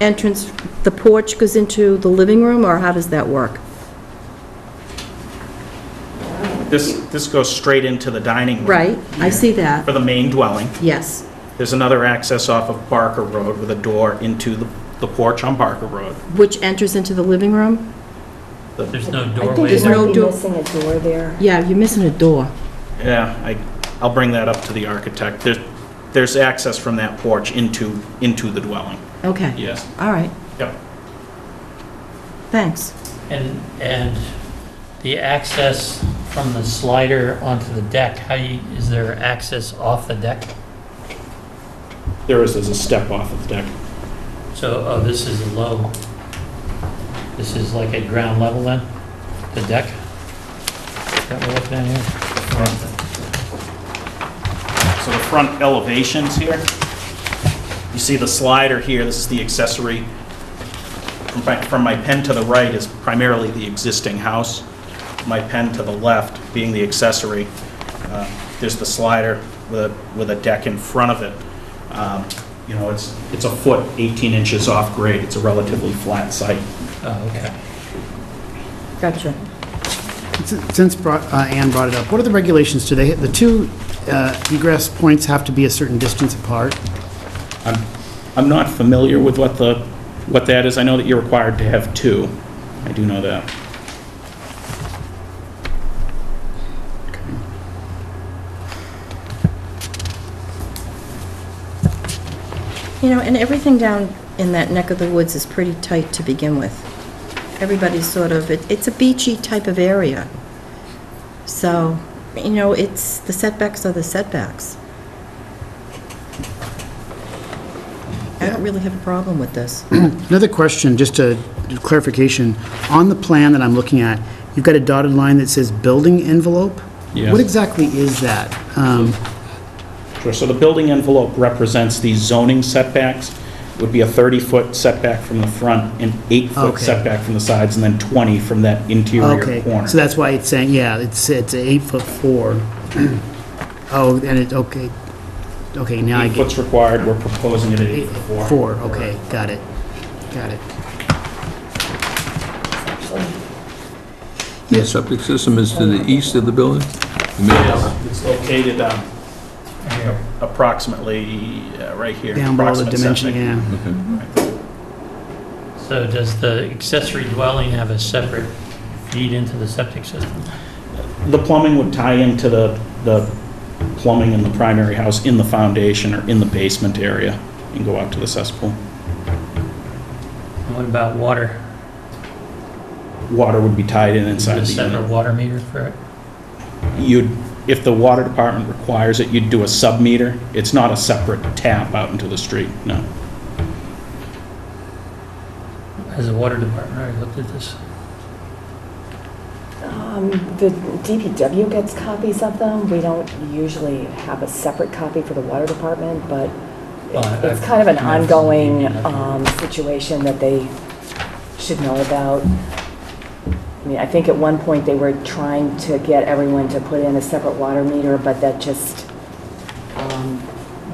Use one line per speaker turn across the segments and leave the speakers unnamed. entrance, the porch goes into the living room, or how does that work?
This, this goes straight into the dining room.
Right, I see that,
For the main dwelling.
yes.
There's another access off of Barker Road with a door into the the porch on Barker Road.
Which enters into the living room?
There's no
I think
doorway
There's
you
there.
no
might be
door.
missing a door there.
Yeah, you're missing a door.
Yeah, I, I'll bring that up to the architect. There's, there's access from that porch into, into the dwelling,
Okay,
yes.
all right,
Yep.
thanks.
And, and the access from the slider onto the deck, how you, is there access off the deck?
There is, there's a step off of the deck.
So, oh, this is low. This is like at ground level then, the deck? Is That we're looking at here?
So the front elevations here, you see the slider here, this is the accessory. From my- From my pen to the right is primarily the existing house. My pen to the left being the accessory. Uh, There's the slider with, a- with a deck in front of it. Um, You know, it's, it's a foot, 18 inches off grade, it's a relatively flat site.
Oh, okay.
Gotcha.
Since brought- uh, Ann brought it up, what are the regulations? Do they, the two uh, egress points have to be a certain distance apart?
I'm, I'm not familiar with what the, what that is. I know that you're required to have two. I do know that.
You know, and everything down in that neck of the woods is pretty tight to begin with. Everybody's sort of, it- it's a beachy type of area. So, you know, it's, the setbacks are the setbacks. I don't really have a problem with this.
Another question, just a clarification. On the plan that I'm looking at, you've got a dotted line that says building envelope?
Yes.
What exactly is that? Um,
Sure, so the building envelope represents the zoning setbacks, would be a 30-foot setback from the front, an eight-foot
Okay.
setback from the sides, and then 20 from that interior
Okay,
corner.
so that's why it's saying, yeah, it's, it's eight foot four. Oh, and it, okay, okay, now I
Eight
get
foot's required, we're proposing it at eight foot four.
four, okay, got it, got it.
The septic system is to the east of the building? The main-
Yes, It's located um, approximately, uh, right here.
Down below the
approximate
dimension,
setback.
yeah.
So does the accessory dwelling have a separate feed into the septic system?
The plumbing would tie into the, the plumbing in the primary house in the foundation or in the basement area and go out to the cesspool.
And what about water?
Water would be tied in
Is
inside
there a
the unit.
separate water meter for it?
you'd, if the water department requires it, you'd do a sub-meter. It's not a separate tap out into the street, no.
Has the water department already looked at this?
Um, The DPW gets copies of them. We don't usually have a separate copy for the water department, but
Well, I-
it's kind of an
I've-
ongoing um, situation that they should know about. I mean, I think at one point they were trying to get everyone to put in a separate water meter, but that just um,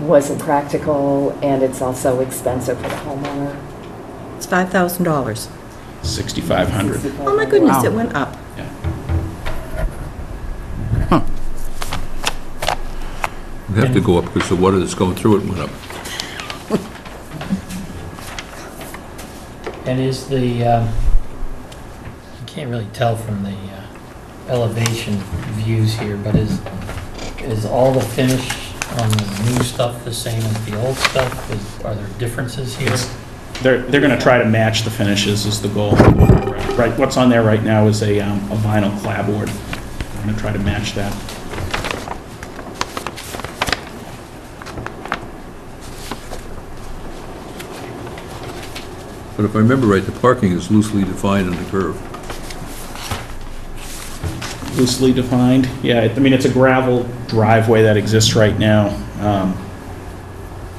wasn't practical, and it's also expensive for the homeowner.
It's $5,000.
6,500.
Oh, my goodness, it went up.
It'd have to go up because the water that's going through it went up.
And is the, um, you can't really tell from the uh, elevation views here, but is, is all the finish on the new stuff the same as the old stuff? Is- Are there differences here?
It's- They're, they're going to try to match the finishes is the goal. Right, what's on there right now is a um, a vinyl clapboard. I'm going to try to match that.
But if I remember right, the parking is loosely defined on the curve.
Loosely defined, yeah, it- I mean, it's a gravel driveway that exists right now. Um,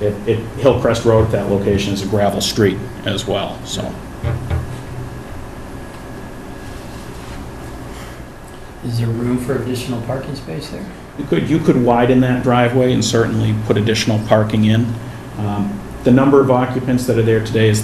It, it- Hillcrest Road at that location is a gravel street as well, so.
Is there room for additional parking space there?
You could, you could widen that driveway and certainly put additional parking in. Um, The number of occupants that are there today is